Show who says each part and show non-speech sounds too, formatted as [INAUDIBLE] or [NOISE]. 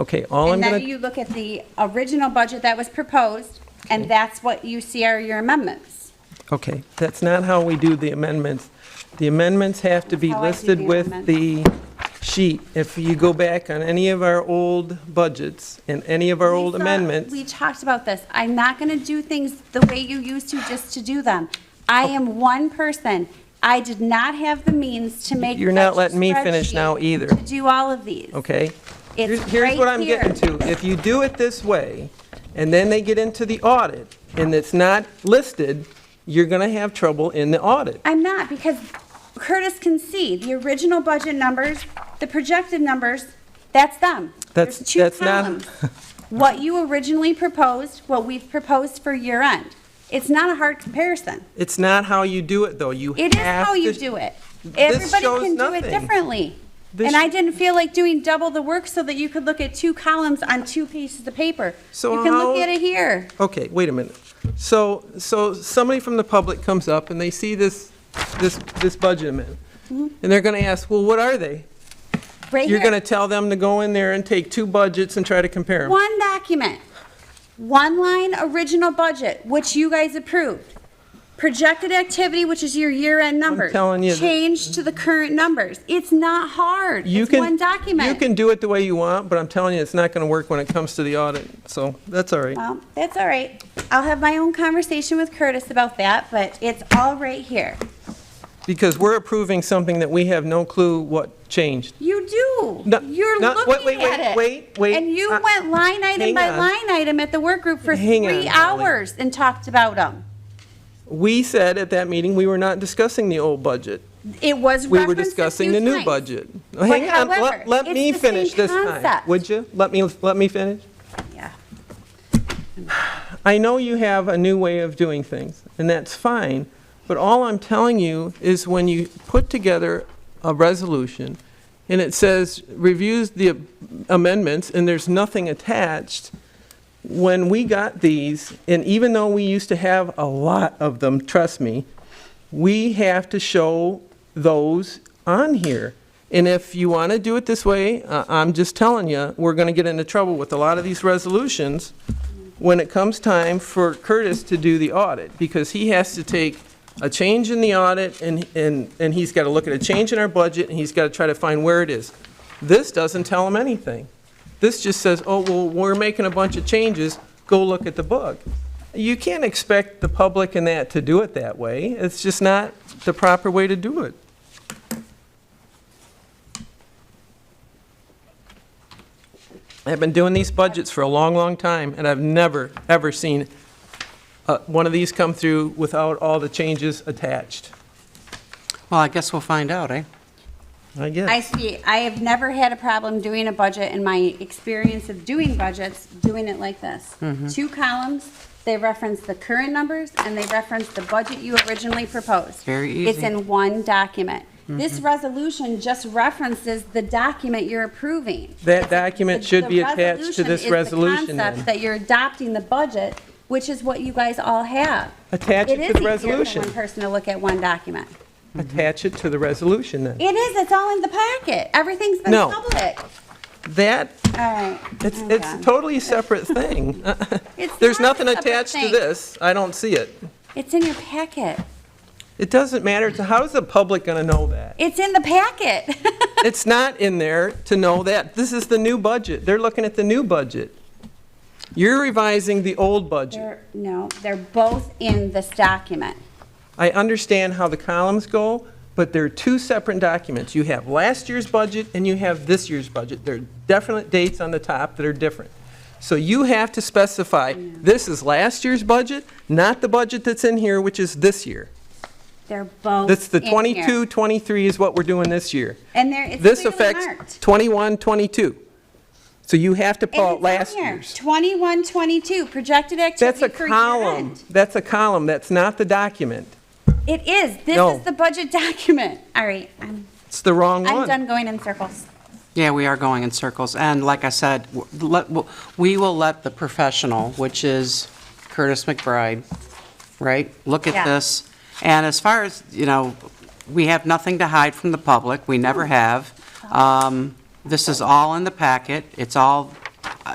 Speaker 1: Okay, all Oh, I'm
Speaker 2: And then
Speaker 1: gonna,
Speaker 2: you look at the original budget that was proposed, and that's what you see are your amendments.
Speaker 1: okay, that's not how we do the amendments. The amendments have to be
Speaker 2: How I do
Speaker 1: listed
Speaker 2: the
Speaker 1: with
Speaker 2: amendment.
Speaker 1: the sheet. If you go back on any of our old budgets and any of our old
Speaker 2: Lisa,
Speaker 1: amendments,
Speaker 2: We talked about this. I'm not going to do things the way you used to just to do them. I
Speaker 1: Oh.
Speaker 2: am one person. I did not have the means to make.
Speaker 1: You're not
Speaker 2: such a
Speaker 1: letting me finish now
Speaker 2: spreadsheet
Speaker 1: either.
Speaker 2: To do all of these.
Speaker 1: okay?
Speaker 2: It's
Speaker 1: Here's- Here's
Speaker 2: right
Speaker 1: what I'm
Speaker 2: here.
Speaker 1: getting to. If you do it this way, and then they get into the audit, and it's not listed, you're gonna have trouble in the audit.
Speaker 2: I'm not, because Curtis can see the original budget numbers, the projected numbers, that's them.
Speaker 1: That's-
Speaker 2: There's two
Speaker 1: that's not-
Speaker 2: columns. What you originally proposed, what we've proposed for year end. It's not a hard comparison.
Speaker 1: It's not how you do it, though. You have to...
Speaker 2: It is how you do it. Everybody
Speaker 1: shows
Speaker 2: can do it
Speaker 1: nothing.
Speaker 2: differently.
Speaker 1: This-
Speaker 2: And I didn't feel like doing double the work so that you could look at two columns on two pieces of paper.
Speaker 1: So
Speaker 2: You can look
Speaker 1: how-
Speaker 2: at it here.
Speaker 1: Okay, wait a minute. So, so somebody from the public comes up and they see this, this, this budget amendment.
Speaker 2: Mm-hmm.
Speaker 1: And they're gonna ask, well, what are they?
Speaker 2: right
Speaker 1: You're
Speaker 2: here.
Speaker 1: gonna tell them to go in there and take two budgets and try to compare them.
Speaker 2: One document, one line original budget, which you guys approved. Projected activity, which is your year-end numbers.
Speaker 1: telling you that-
Speaker 2: Change to the current numbers. It's not hard.
Speaker 1: You
Speaker 2: It's
Speaker 1: can-
Speaker 2: one document.
Speaker 1: You can do it the way you want, but I'm telling you, it's not gonna work when it comes to the audit, so that's all right.
Speaker 2: Well, that's all right. I'll have my own conversation with Curtis about that, but it's all right here.
Speaker 1: Because we're approving something that we have no clue what changed.
Speaker 2: You do.
Speaker 1: No,
Speaker 2: You're
Speaker 1: no, wait, wait,
Speaker 2: looking
Speaker 1: wait,
Speaker 2: at it.
Speaker 1: wait, wait.
Speaker 2: And you
Speaker 1: Uh,
Speaker 2: went line item
Speaker 1: hang
Speaker 2: by
Speaker 1: on.
Speaker 2: line item at the work group for
Speaker 1: Hang on,
Speaker 2: three
Speaker 1: Holly.
Speaker 2: hours and talked about them.
Speaker 1: We said at that meeting, we were not discussing the old budget.
Speaker 2: It was
Speaker 1: We were
Speaker 2: referenced a
Speaker 1: discussing the
Speaker 2: few
Speaker 1: new
Speaker 2: times.
Speaker 1: budget. [LAUGHS]
Speaker 2: But
Speaker 1: Hang on, let-
Speaker 2: however,
Speaker 1: let
Speaker 2: it's
Speaker 1: me
Speaker 2: the same
Speaker 1: finish this time.
Speaker 2: concept.
Speaker 1: Would you? Let me, let me finish.
Speaker 2: Yeah.
Speaker 1: I know you have a new way of doing things, and that's fine, but all I'm telling you is when you put together a resolution, and it says, reviews the amendments, and there's nothing attached, when we got these, and even though we used to have a lot of them, trust me, we have to show those on here. And if you want to do it this way, uh, I'm just telling you, we're going to get into trouble with a lot of these resolutions when it comes time for Curtis to do the audit, because he has to take a change in the audit, and, and, and he's got to look at a change in our budget, and he's got to try to find where it is. This doesn't tell him anything. This just says, oh, well, we're making a bunch of changes, go look at the book. You can't expect the public and that to do it that way. It's just not the proper way to do it. I've been doing these budgets for a long, long time, and I've never, ever seen uh, one of these come through without all the changes attached.
Speaker 3: Well, I guess we'll find out, eh?
Speaker 1: I
Speaker 2: I
Speaker 1: guess.
Speaker 2: see. I have never had a problem doing a budget in my experience of doing budgets, doing it like this.
Speaker 1: Mm-hmm.
Speaker 2: Two columns, they reference the current numbers and they reference the budget you originally proposed.
Speaker 3: Very
Speaker 2: It's
Speaker 3: easy.
Speaker 2: in one document. This
Speaker 1: Mm-hmm.
Speaker 2: resolution just references the document you're approving.
Speaker 1: That document
Speaker 2: The-
Speaker 1: should
Speaker 2: the
Speaker 1: be attached to this resolution
Speaker 2: Is the concept
Speaker 1: then.
Speaker 2: that you're adopting the budget, which is what you guys all have.
Speaker 1: Attach it to the
Speaker 2: It is easier for
Speaker 1: resolution.
Speaker 2: one person to look at one document.
Speaker 1: Attach it to the resolution then.
Speaker 2: It is, it's all in the packet. Everything's been
Speaker 1: No.
Speaker 2: public.
Speaker 1: That,
Speaker 2: All right.
Speaker 1: it's,
Speaker 2: I'm done.
Speaker 1: it's totally a separate thing.
Speaker 2: [LAUGHS] It's
Speaker 1: [LAUGHS] There's
Speaker 2: not a
Speaker 1: nothing
Speaker 2: separate
Speaker 1: attached to
Speaker 2: thing.
Speaker 1: this. I don't see it.
Speaker 2: It's in your packet.
Speaker 1: It doesn't matter. to How's the public going to know that?
Speaker 2: It's in the packet. [LAUGHS]
Speaker 1: It's not in there to know that. This is the new budget. They're looking at the new budget. You're revising the old budget.
Speaker 2: They're- No, they're both in this document.
Speaker 1: I understand how the columns go, but they're two separate documents. You have last year's budget and you have this year's budget. There are definite dates on the top that are different. So you have to specify, this is last year's budget, not the budget that's in here, which is this year.
Speaker 2: They're both
Speaker 1: That's the
Speaker 2: in here.
Speaker 1: 22, 23 is what we're doing this year.
Speaker 2: And there, it's
Speaker 1: This
Speaker 2: clearly
Speaker 1: affects
Speaker 2: marked.
Speaker 1: 21, 22. So you have to pull out
Speaker 2: And
Speaker 1: oh, last
Speaker 2: it's on here.
Speaker 1: year's.
Speaker 2: 21, 22, projected
Speaker 1: That's a
Speaker 2: activity for year
Speaker 1: column.
Speaker 2: end.
Speaker 1: That's a column. That's not the document.
Speaker 2: It is.
Speaker 1: No.
Speaker 2: This is the budget [LAUGHS] document. All right, I'm,
Speaker 1: It's the wrong
Speaker 2: I'm
Speaker 1: one.
Speaker 2: done going in circles.
Speaker 3: Yeah, we are going in circles, and like I said, w- let- w- we will let the professional, which is Curtis McBride, right, look at
Speaker 2: Yeah.
Speaker 3: this. And as far as, you know, we have nothing to hide from the public, we never have. Um, This is all in the packet, it's all